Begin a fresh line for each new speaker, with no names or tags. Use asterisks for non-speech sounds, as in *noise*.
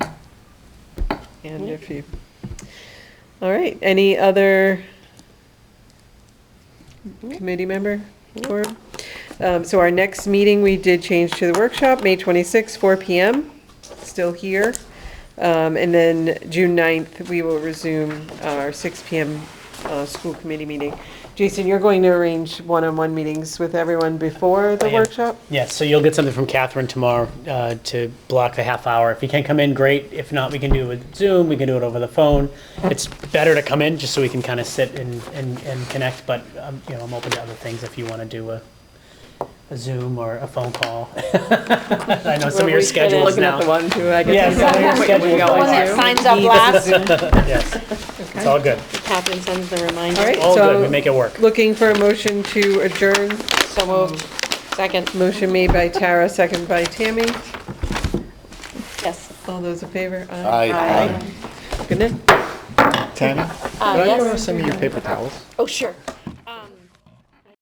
And if you, all right, any other committee member? quorum? Um, So our next meeting, we did change to the workshop, May 26, 4 PM, still here. Um, And then June 9th, we will resume our 6 PM uh, school committee meeting. Jason, you're going to arrange one-on-one meetings with everyone before the
I am.
workshop?
Yes, so you'll get something from Catherine tomorrow uh, to block the half hour. If you can come in, great. If not, we can do it with Zoom, we can do it over the phone. It's better to come in just so we can kind of sit and, and, and connect, but, um, you know, I'm open to other things if you want to do a, a Zoom or a phone call. *laughs* I know some of your schedules
Looking at the
now.
one who I
Yeah,
guess. *laughs*
some of your schedules
The one
now.
that signs up last,
Yes,
*laughs*
it's all good.
Catherine sends the
All right,
reminder.
All good, we
so
make it work.
looking for a motion to adjourn.
So moved. Second,
Motion made by Tara, second by Tammy.
yes.
All those in favor?
Aye.
Good night.
Tana,
Uh,
can I borrow
yes.
some of your paper towels?
Oh, sure.